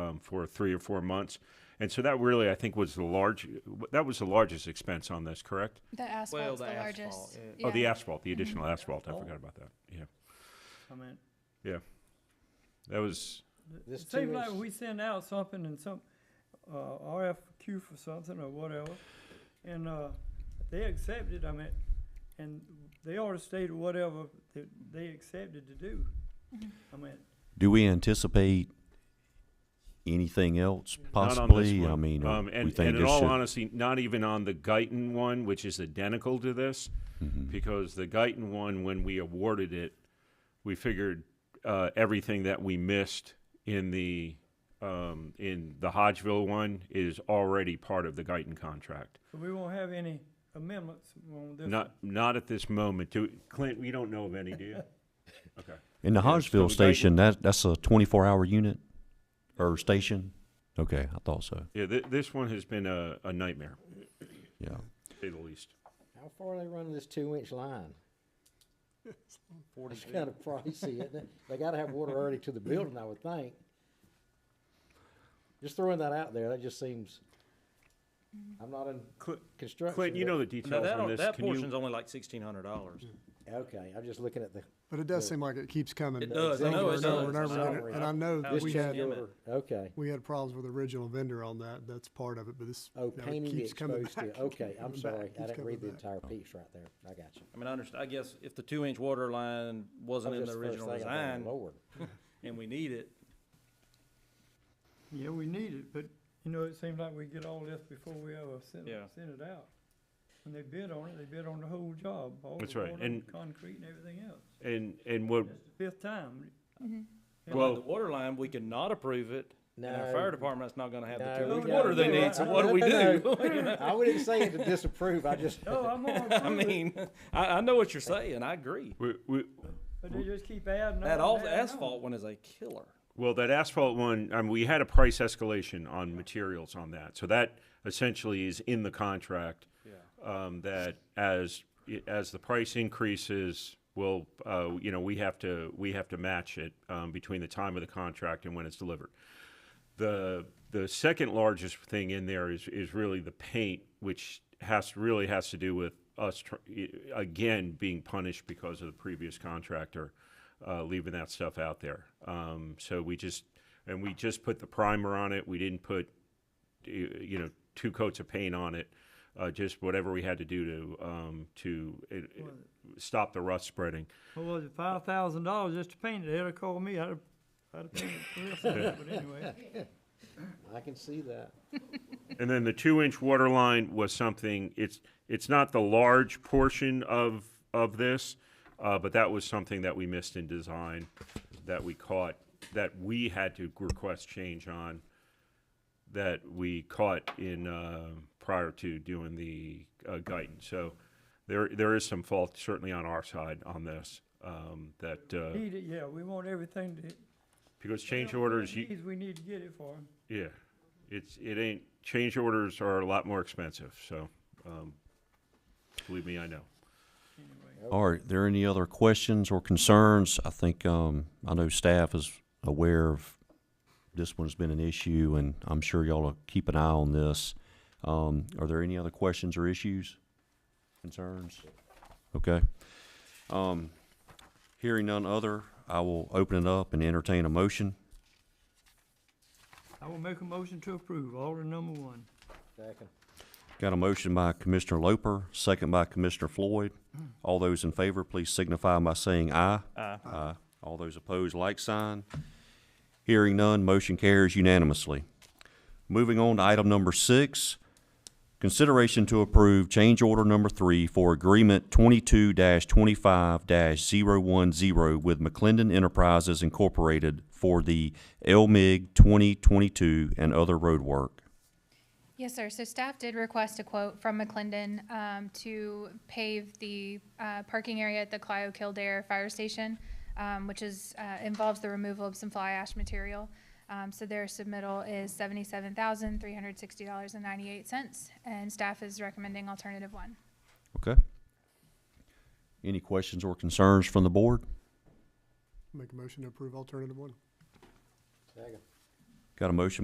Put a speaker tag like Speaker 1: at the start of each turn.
Speaker 1: um, for three or four months. And so that really, I think, was the large. That was the largest expense on this, correct?
Speaker 2: The
Speaker 3: Well,
Speaker 2: asphalt's the
Speaker 3: the asphalt,
Speaker 2: largest.
Speaker 3: yeah.
Speaker 1: Oh, the
Speaker 2: Yeah.
Speaker 1: asphalt, the additional asphalt. I forgot about that. Yeah,
Speaker 4: I mean,
Speaker 1: that was.
Speaker 5: This
Speaker 4: it seems
Speaker 5: too
Speaker 4: like
Speaker 5: is-
Speaker 4: we send out something and some, uh, RFQ for something or whatever, and, uh, they accepted, I mean, and they ought to state whatever that they accepted to do. I mean,
Speaker 6: Do we anticipate anything else
Speaker 1: Not on this
Speaker 6: possibly? I
Speaker 1: one.
Speaker 6: mean, or
Speaker 1: um,
Speaker 6: we
Speaker 1: and,
Speaker 6: think
Speaker 1: and in
Speaker 6: this
Speaker 1: all
Speaker 6: should-
Speaker 1: honesty, not even on the Guyton one, which is identical to this,
Speaker 6: Mm-hmm.
Speaker 1: because the Guyton one, when we awarded it, we figured uh, everything that we missed in the um, in the Hodgeville one is already part of the Guyton contract.
Speaker 4: so we won't have any amendments on this.
Speaker 1: Not not at this moment. Do, Clint, we don't know of any, do you? Okay.
Speaker 6: In
Speaker 1: Yeah,
Speaker 6: the
Speaker 1: so we
Speaker 6: Hodgeville
Speaker 1: got-
Speaker 6: station, that, that's a twenty-four hour unit or station? Okay, I thought so,
Speaker 1: Yeah, th- this one has been a, a nightmare,
Speaker 6: yeah.
Speaker 1: to say the least.
Speaker 5: How far are they running this two-inch line?
Speaker 3: Forty
Speaker 5: It's kind of pricey, isn't it? They gotta have water already to the building, I would think. Just throwing that out there, that just seems, I'm not in
Speaker 1: Clint,
Speaker 5: construction.
Speaker 1: Clint, you
Speaker 5: but-
Speaker 1: know the
Speaker 3: Now,
Speaker 1: details
Speaker 3: that,
Speaker 1: on
Speaker 3: o-
Speaker 1: this.
Speaker 3: that
Speaker 1: Can you-
Speaker 3: portion's only like sixteen hundred dollars.
Speaker 5: Okay, I'm just looking at the,
Speaker 7: But it does seem like it keeps coming.
Speaker 3: It does. I
Speaker 7: over
Speaker 3: know it
Speaker 7: and over and
Speaker 3: does.
Speaker 7: over again.
Speaker 5: Sorry.
Speaker 7: And I know that
Speaker 3: This
Speaker 7: Oh, we
Speaker 3: check
Speaker 7: had,
Speaker 3: Damn it.
Speaker 5: order, okay.
Speaker 7: we had problems with the original vendor on that. That's part of it, but this.
Speaker 5: Oh,
Speaker 7: now it
Speaker 5: painting the
Speaker 7: keeps coming
Speaker 5: exposed
Speaker 7: back,
Speaker 5: steel, okay,
Speaker 7: keeps
Speaker 5: I'm
Speaker 7: coming back,
Speaker 5: sorry, I
Speaker 7: keeps
Speaker 5: didn't
Speaker 7: coming
Speaker 5: read the
Speaker 7: back.
Speaker 5: entire piece right there, I got you.
Speaker 3: I mean, I understand, I guess if the two-inch water line wasn't in the original design
Speaker 5: Lord,
Speaker 3: and we need it,
Speaker 4: Yeah, we need it, but, you know, it seems like we get all this before we ever send,
Speaker 3: Yeah.
Speaker 4: send it out. When they bid on it, they bid on the whole job, all
Speaker 1: That's
Speaker 4: the
Speaker 1: right,
Speaker 4: water,
Speaker 1: and-
Speaker 4: and concrete and everything else.
Speaker 1: And, and what,
Speaker 4: That's the fifth time.
Speaker 3: and
Speaker 1: Well-
Speaker 3: like the water line, we could not approve it. And our
Speaker 5: No.
Speaker 3: fire department's not gonna have the
Speaker 5: No,
Speaker 3: two-inch
Speaker 4: we
Speaker 3: water they
Speaker 4: gotta do
Speaker 3: need,
Speaker 4: it.
Speaker 3: so what do we do?
Speaker 5: I wouldn't say it to disapprove, I just,
Speaker 4: Oh, I'm gonna
Speaker 3: I
Speaker 4: approve it,
Speaker 3: mean, I, I know what you're saying, I agree.
Speaker 1: we, we,
Speaker 4: But they just keep adding on.
Speaker 3: That all,
Speaker 4: adding on.
Speaker 3: asphalt one is a killer.
Speaker 1: well, that asphalt one, I mean, we had a price escalation on materials on that. So that essentially is in the contract. Um, that as, as the price increases, we'll, uh, you know, we have to, we have to match it, um, between the time of the contract and when it's delivered. The, the second largest thing in there is, is really the paint, which has, really has to do with us, tr- i- again, being punished because of the previous contractor, uh, leaving that stuff out there. Um, so we just, and we just put the primer on it, we didn't put, y- you know, two coats of paint on it, uh, just whatever we had to do to, um, to uh, uh, stop the rust spreading.
Speaker 4: What was it, five thousand dollars just to paint it? They'd have called me, I'd have, I'd have painted it for this, but anyway.
Speaker 5: I can see that.
Speaker 1: And then the two-inch water line was something, it's, it's not the large portion of, of this, uh, but that was something that we missed in design, that we caught, that we had to request change on, that we caught in, uh, prior to doing the, uh, guidance. So there, there is some fault certainly on our side on this, um, that, uh,
Speaker 4: Need it, yeah, we want everything to.
Speaker 1: because change orders, you,
Speaker 4: Needs, we need to get it for 'em.
Speaker 1: yeah, it's, it ain't, change orders are a lot more expensive, so, um, believe me, I know.
Speaker 6: All right, there any other questions or concerns? I think, um, I know staff is aware of this one's been an issue, and I'm sure y'all will keep an eye on this. Um, are there any other questions or issues, concerns? Okay. Um, hearing none other, I will open it up and entertain a motion.
Speaker 4: I will make a motion to approve, order number one.
Speaker 5: Second.
Speaker 6: Got a motion by Commissioner Loper, second by Commissioner Floyd. All those in favor, please signify by saying aye. Aye. Aye. All those opposed, like sign. Hearing none, motion carries unanimously. Moving on to item number six, consideration to approve change order number three for agreement twenty-two twenty-five 10 with McClendon Enterprises Incorporated for the LMIG twenty twenty-two and other road work.
Speaker 2: Yes, sir. So staff did request a quote from McClendon um, to pave the uh, parking area at the Clio Kildare Fire Station, um, which is, uh, involves the removal of some fly ash material. Um, So their submittal is seventy-seven thousand, three hundred sixty dollars and ninety-eight cents, and staff is recommending alternative one.
Speaker 6: Okay. Any questions or concerns from the board?
Speaker 7: Make a motion to approve alternative one.
Speaker 5: Second.
Speaker 6: Got a motion